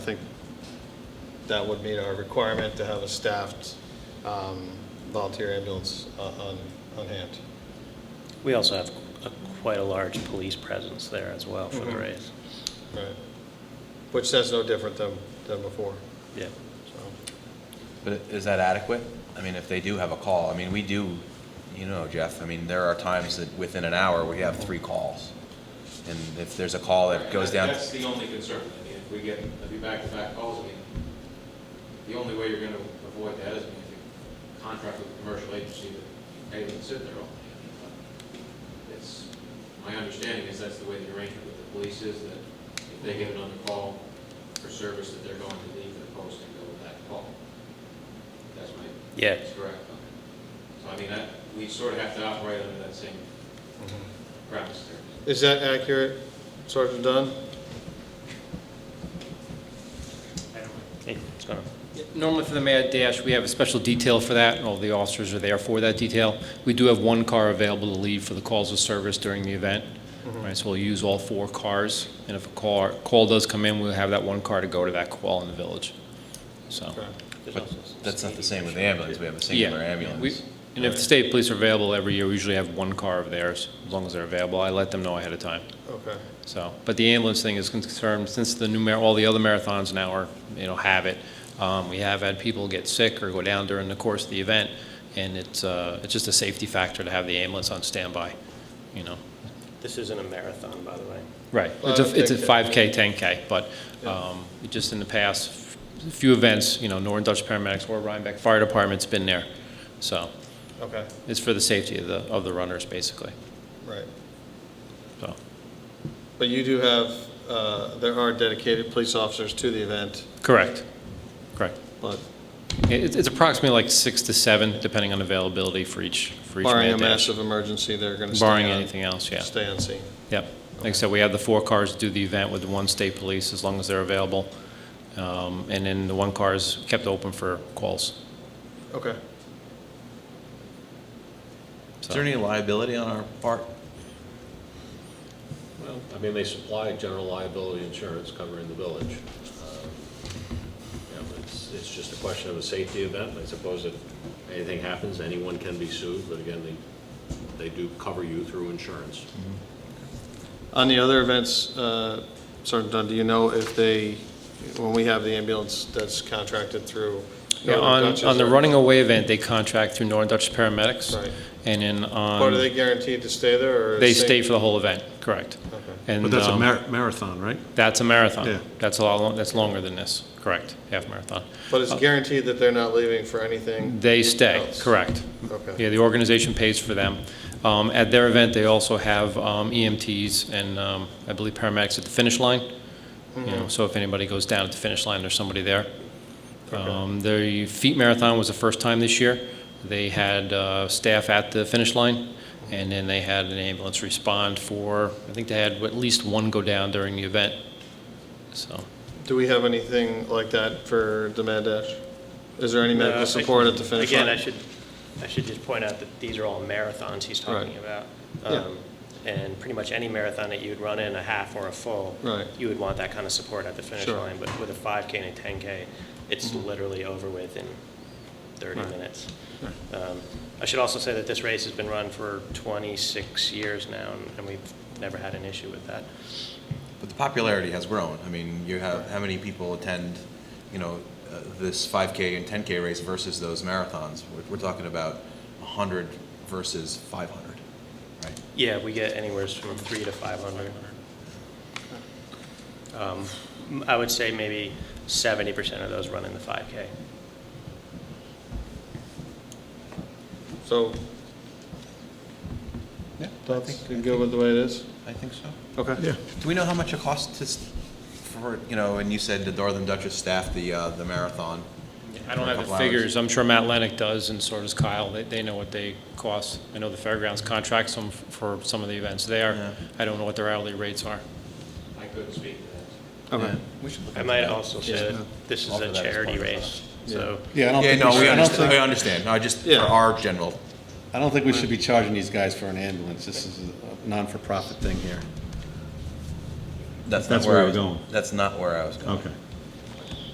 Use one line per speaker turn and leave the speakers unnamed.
I think that would meet our requirement to have a staffed um, volunteer ambulance o- on, on hand.
We also have a- quite a large police presence there as well for the
Mhm.
race.
Right. Which that's no different than, than before,
Yeah.
so.
But is that adequate? I mean, if they do have a call, I mean, we do, you know, Jeff, I mean, there are times that within an hour, we have three calls. And if there's a call that goes down,
That's the only concern. I mean, if we get, if you back-to-back calls, I mean, the only way you're going to avoid that is I mean, if you contract with a commercial agency that, hey, they can sit there all day. But It's, my understanding is that's the way the arrangement with the police is, that if they get another call for service, that they're going to leave their post and go with that call. That's my.
Yeah.
That's correct. So I mean, that, we sort of have to operate under that same
Mm-hmm.
premise there.
Is that accurate, Sergeant Dunn?
Hey, it's gonna-
Normally for the Mad Dash, we have a special detail for that, and all the officers are there for that detail. We do have one car available to leave for the calls of service during the event. Right, so we'll use all four cars, and if a car, call does come in, we'll have that one car to go to that call in the village, so.
Okay.
there's
but
also
that's not the same with
safety
ambulance, we have a
yeah,
singular
we-
ambulance.
And if the state police are available every year, we usually have one car of theirs, as long as they're available. I let them know ahead of time,
Okay,
so. But the ambulance thing is concerned, since the new, mar- all the other marathons now are, you know, have it. Um, We have had people get sick or go down during the course of the event, and it's, uh, it's just a safety factor to have the ambulance on standby, you know?
issue. This isn't a marathon, by the way.
Right.
Well,
It's
I don't
a, it's a
think that-
5K, 10K, but um, just in the past few events, you know, Northern Dutch paramedics or Rhinebeck Fire Department's been there, so.
okay,
It's for the safety of the, of the runners, basically,
right.
so.
But you do have, uh, there are dedicated police officers to the event,
Correct, correct.
but
It- It's approximately like six to seven, depending on availability for each, for each
barring a
man dash.
massive emergency, they're going to stay on.
Barring anything else, yeah.
Stay on scene.
Yep. Like I said, we have the four cars to do the event with the one state police, as long as they're available. Um, And then the one car is kept open for calls.
Okay.
Is there any liability on our part?
Well, I mean, they supply general liability insurance covering the village. Um, you know, It's, it's just a question of a safety event, and I suppose if anything happens, anyone can be sued, but again, they, they do cover you through insurance.
On the other events, uh, Sergeant Dunn, do you know if they, when we have the ambulance that's contracted through?
Yeah,
Northern
on,
Dutchess,
on the
are-
running away event, they contract through Northern Dutch paramedics.
Right.
And then
But are they
on,
guaranteed to stay there, or?
they
is it-
stay for the whole event, correct.
Okay.
And,
But that's a
um,
mar- marathon, right?
That's a
Yeah.
marathon. That's a lot, lo- that's longer than this, correct, half marathon.
But it's guaranteed that they're not leaving for anything?
They stay,
Else.
correct.
Okay.
Yeah, the organization pays for them. Um, At their event, they also have um, EMTs and um, I believe paramedics at the finish line. You know, so if anybody goes down at the finish line, there's somebody there. Um, The feet marathon was the first time this year. They had uh, staff at the finish line, and then they had an ambulance respond for, I think they had at least one go down during the event, so.
Do we have anything like that for the Mad Dash? Is there any medical support at the finish line?
Again, I Uh, should, I should just point out that these are all marathons he's talking about.
Yeah.
Um, And pretty much any marathon that you'd run in, a half or a full.
Right.
You would want that kind of support at the finish
Sure. Mm-hmm.
line, but with a 5K and a 10K, it's literally over with in 30 minutes. Um, I should also say that this race has been run for 26 years now, and- and we've never had an issue with that.
But the popularity has grown. I mean, you have, how many people attend, you know, uh, this 5K and 10K race versus those marathons? We're- We're talking about 100 versus 500, right?
Yeah, we get anywhere from three to 500. Um, m- I would say maybe 70% of those run in the 5K.
So,
Yeah,
thoughts, you good with the way it is?
I think so.
Okay.
Yeah.
Do we know how much it costs to, s- for, you know, and you said the Northern Duchess staffed the, uh, the marathon?
I don't
for a
have the
couple hours.
figures. I'm sure Matt Lennox does, and so does Kyle. They, they know what they cost. I know the fairgrounds contracts them for some of the events
Yeah.
there. I don't know what their hourly rates are.
I couldn't speak to that.
Yeah,
Okay.
We should look
I
into
might
that.
also say that this is
Offer
a
that as
charity
part of the-
race, so.
Yeah, I don't
Yeah,
think, we
no, we
should- I don't
understand, we
think,
understand. No, just for
Yeah.
our general,
I don't think we should be charging these guys for an ambulance. This is a non-for-profit thing here.
that's not
That's
where I
where
was.
we're going.
That's not where I was going.
Okay.